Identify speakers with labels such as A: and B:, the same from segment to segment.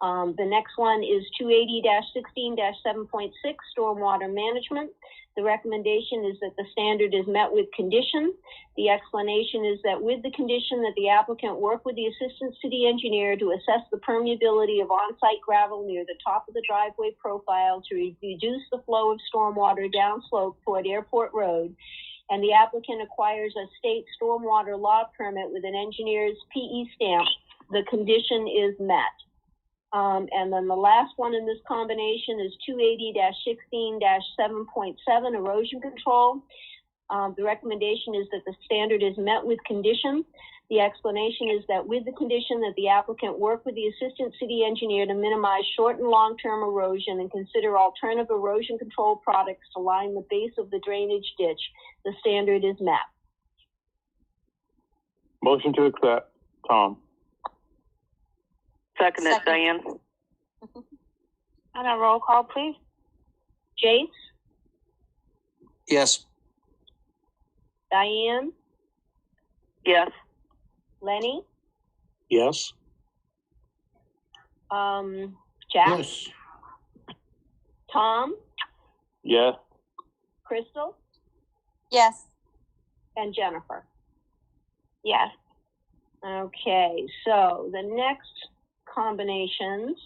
A: Um, the next one is two eighty sixteen seven point six, stormwater management. The recommendation is that the standard is met with condition. The explanation is that with the condition that the applicant work with the assistant city engineer to assess the permeability of on-site gravel near the top of the driveway profile to re- reduce the flow of stormwater downslope toward Airport Road. And the applicant acquires a state stormwater law permit with an engineer's PE stamp. The condition is met. Um, and then the last one in this combination is two eighty sixteen seven point seven erosion control. Um, the recommendation is that the standard is met with condition. The explanation is that with the condition that the applicant work with the assistant city engineer to minimize short and long-term erosion and consider alternative erosion control products to line the base of the drainage ditch, the standard is met.
B: Motion to accept, Tom.
C: Second it,
D: Second.
C: Diane.
E: On a roll call, please.
A: Jace,
F: yes,
A: Diane,
C: Yes.
A: Lenny,
B: Yes.
A: um, Jack,
G: yes,
A: Tom,
B: Yes.
A: Crystal,
D: yes,
A: and Jennifer.
E: Yes.
A: Okay, so the next combinations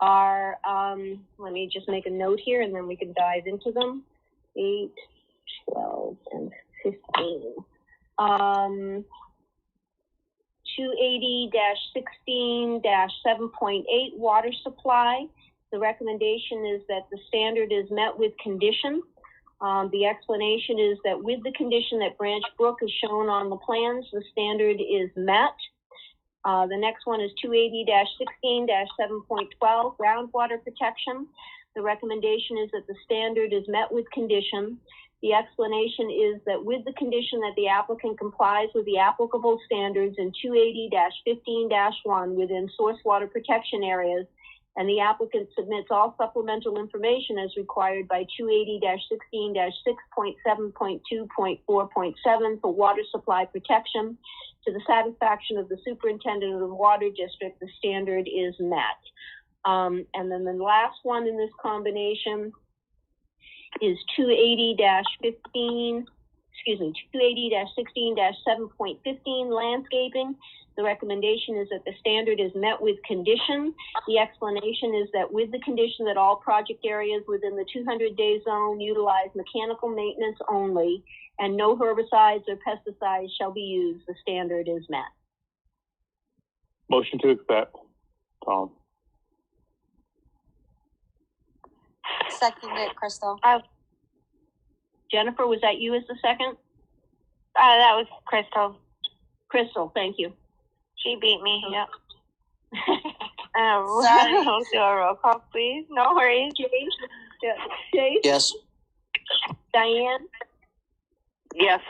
A: are, um, let me just make a note here and then we can dive into them. Eight, twelve, and fifteen. Um, two eighty sixteen seven point eight water supply. The recommendation is that the standard is met with condition. Um, the explanation is that with the condition that Branch Brook is shown on the plans, the standard is met. Uh, the next one is two eighty sixteen seven point twelve, groundwater protection. The recommendation is that the standard is met with condition. The explanation is that with the condition that the applicant complies with the applicable standards in two eighty fifteen one within source water protection areas, and the applicant submits all supplemental information as required by two eighty sixteen six point seven point two point four point seven for water supply protection. To the satisfaction of the superintendent of the water district, the standard is met. Um, and then the last one in this combination is two eighty fifteen, excuse me, two eighty sixteen seven point fifteen landscaping. The recommendation is that the standard is met with condition. The explanation is that with the condition that all project areas within the 200-day zone utilize mechanical maintenance only and no herbicides or pesticides shall be used, the standard is met.
B: Motion to accept, Tom.
D: second it, Crystal.
A: Jennifer, was that you as the second?
E: Uh, that was Crystal.
A: Crystal, thank you.
E: She beat me. Yep. Uh,
A: Um,
D: Sorry.
E: we'll do a roll call, please. No worries.
A: Dave,
F: yes.
A: Diane,
C: Yes.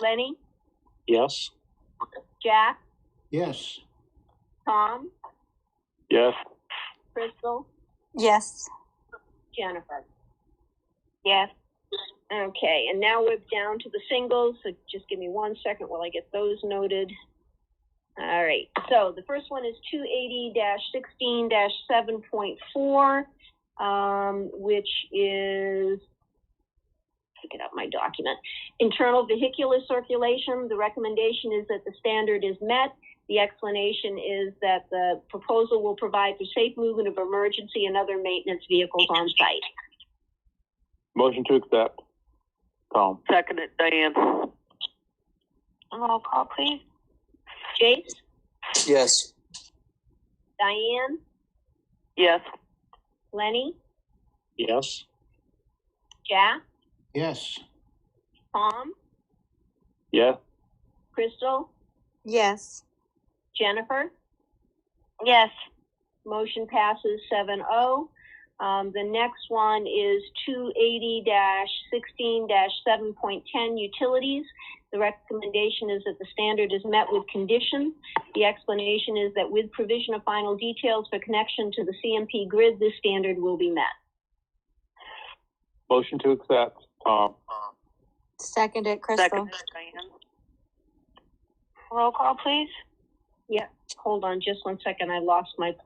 A: Lenny,
B: Yes.
A: Jack,
G: yes.
A: Tom,
B: Yes.
A: Crystal,
D: Yes.
A: Jennifer.
E: Yes.
A: Okay, and now we're down to the singles, so just give me one second while I get those noted. All right, so the first one is two eighty sixteen seven point four, um, which is, pick it up my document, internal vehicular circulation, the recommendation is that the standard is met. The explanation is that the proposal will provide for safe movement of emergency and other maintenance vehicles on site.
B: Motion to accept, Tom.
C: Second it, Diane.
E: Roll call, please.
A: Jace,
F: Yes.
A: Diane?
C: Yes.
A: Lenny,
B: Yes.
A: Jack,
G: Yes,
A: Tom,
B: Yes.
A: Crystal,
D: Yes.
A: Jennifer.
E: Yes.
A: Motion passes 7-0. Um, the next one is two eighty sixteen seven point ten utilities. The recommendation is that the standard is met with condition. The explanation is that with provision of final details for connection to the CMP grid, this standard will be met.
B: Motion to accept, Tom.
D: Second it, Crystal.
C: Second it, Diane.
E: Roll call, please.
A: Hold on just one second, I lost my place.